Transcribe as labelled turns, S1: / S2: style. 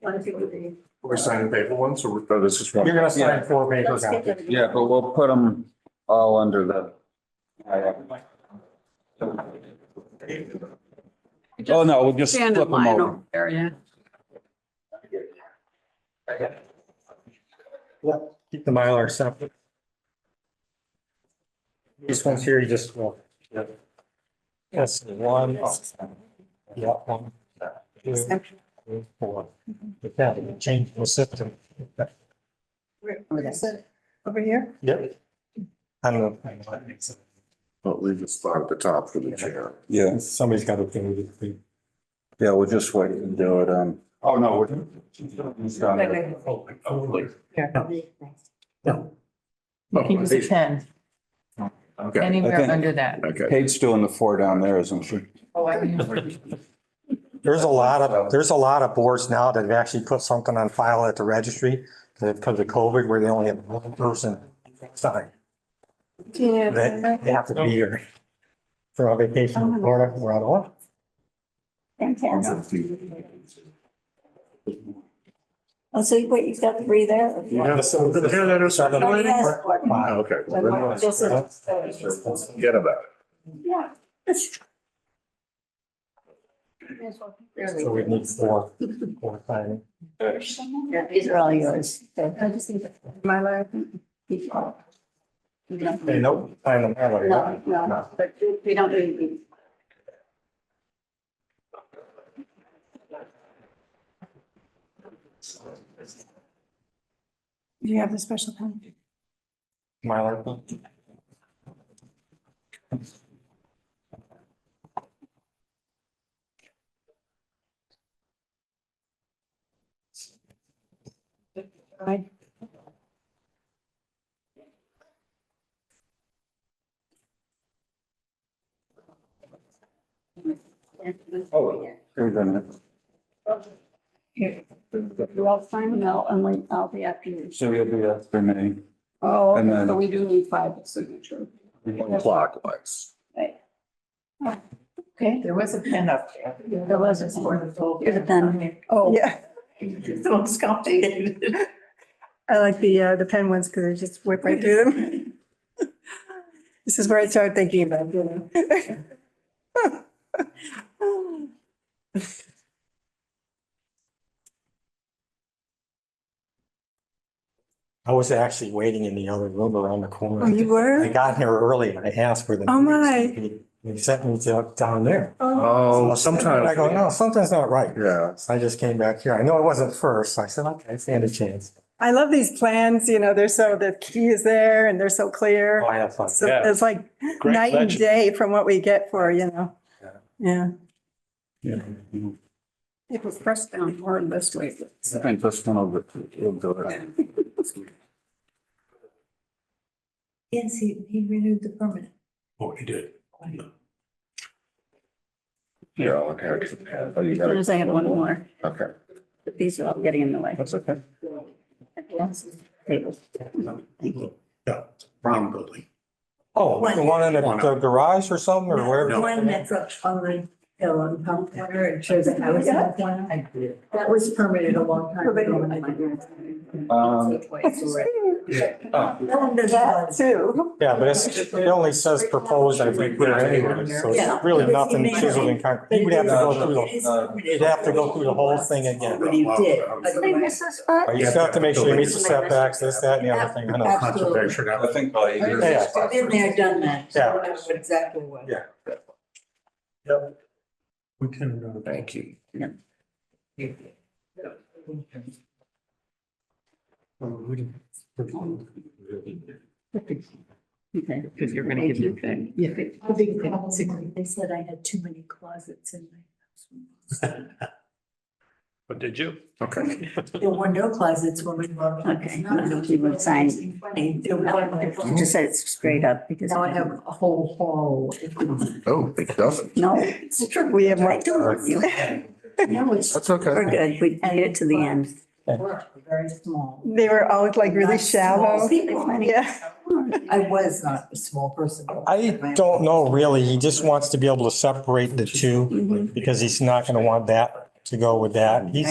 S1: One, two, three.
S2: We're signing paper ones or?
S3: So this is
S2: You're
S3: one.
S2: gonna sign four paper
S1: Let's get
S2: copies.
S1: them.
S3: Yeah, but we'll put them all under the. Oh, no, we'll just flip
S4: Stand in
S3: them
S4: line
S3: over.
S4: over there, yeah.
S2: Keep the Mylar separate. This one's here, you just, well. Yes, one. Yeah, one. two, three, Four. But that, you change the system.
S1: Where- where is it? Over here?
S2: Yep. I don't know.
S5: But leave a spot at the top for the chair.
S3: Yeah,
S2: Somebody's got to do it.
S3: yeah, we'll just wait and do it, um. Oh, no, we're. it's down
S1: Wait,
S3: there.
S1: wait,
S2: Oh, Here. No.
S5: Oh,
S6: You can use a pen
S5: Okay,
S3: I
S6: anywhere
S3: think-
S6: under that.
S5: okay.
S3: Kate's doing the four down there, isn't she?
S6: Oh, I mean,
S2: There's a lot of, there's a lot of boards now that have actually put something on file at the registry because of COVID where they only have one person sign.
S1: Yeah.
S2: They they have to be here for a vacation in Florida. We're out of luck.
S1: Fantastic. Oh, so you- wait, you've got three there?
S2: so.
S1: Oh, yes.
S5: Okay, well, then let's
S1: This is- uh,
S5: forget about
S1: Yeah.
S2: So we need four, four signing.
S1: Yeah, These are all yours. I just need my life. No,
S2: Hey, no, sign them that way, right?
S1: no, but we don't need these. Do you have the special pen?
S2: Mylar.
S3: Oh. Here's a minute.
S1: Here, you all sign them out and like, I'll be after you.
S3: So you'll do that for me.
S1: Oh,
S3: And
S1: okay,
S3: then-
S1: so we do need five signature.
S5: it clockwise.
S1: Okay,
S6: there was a pen up there.
S1: there was a
S6: For
S1: four.
S6: the full-
S1: Here's a pen. Oh.
S7: Yeah,
S6: It's almost complicated.
S7: I like the, uh, the pen ones because they just whip right through them. This is where I started thinking about, you know.
S2: I was actually waiting in the other room around the corner.
S7: Oh, you
S2: I
S7: were?
S2: got here early and I asked for the.
S7: Oh,
S2: meetings. They sent me to- down there.
S5: Oh,
S2: I go, no, something's not right.
S5: Yeah,
S2: So I just came back here. I know it wasn't first. so I said, okay, stand a chance.
S7: I love these plans, you know, they're so, the key is there and they're so clear.
S2: Oh, I have fun.
S7: So It's like night and day from what we get for, you know? Yeah.
S1: It was pressed down hard this way.
S3: I think this one will, will do it.
S1: Yes, he, he renewed the permit.
S2: Oh, you did.
S5: yeah, okay. Oh, you
S1: As soon
S5: gotta-
S1: as I had one more,
S5: Okay.
S1: but these are all getting in the way.
S5: That's okay.
S1: Yes.
S8: Yeah, Brown Building.
S2: Oh, the one in the the garage or something or wherever?
S9: One that's up on the hill on Pump Corner and shows a house. on the corner. That was permitted a long time ago.
S3: Um,
S9: And there's that too.
S2: Yeah, but it's, it only says proposed, I think, there anyway. So it's really nothing chiseled in concrete. You would have to go through the,
S9: It is
S3: uh,
S9: permitted.
S2: you'd have to go through the whole thing again.
S9: But you did.
S1: Did I miss a
S2: Or
S1: spot?
S2: You still have to make sure it meets the setbacks, this, that, and the other thing. I know.
S8: Conservation.
S3: I think by either.
S2: Yeah.
S9: I've been there, done that. So I know what Exactly what.
S2: Yeah.
S8: We can, uh,
S5: Thank you.
S1: Okay, because you're gonna give me thing.
S6: Yeah.
S9: The big problem was They said I had too many closets in my house.
S8: but Oh, did you?
S5: Okay.
S9: There were no closets when we moved.
S1: Okay, I don't think you were signing.
S9: Funny, there were-
S1: You just said it's straight up because.
S9: Now I have a whole hall.
S5: Oh, it doesn't.
S1: No, it's true.
S7: We have more-
S1: I don't want you.
S9: Now it's
S5: That's okay.
S1: We're good. We made it to the end.
S9: We're very small.
S7: They were always like really
S9: Not small
S7: shallow.
S9: people.
S7: Yeah.
S9: I was not a small person.
S2: I don't know really. He just wants to be able to separate the two
S1: Mhm.
S2: because he's not going to want that to go with that. He's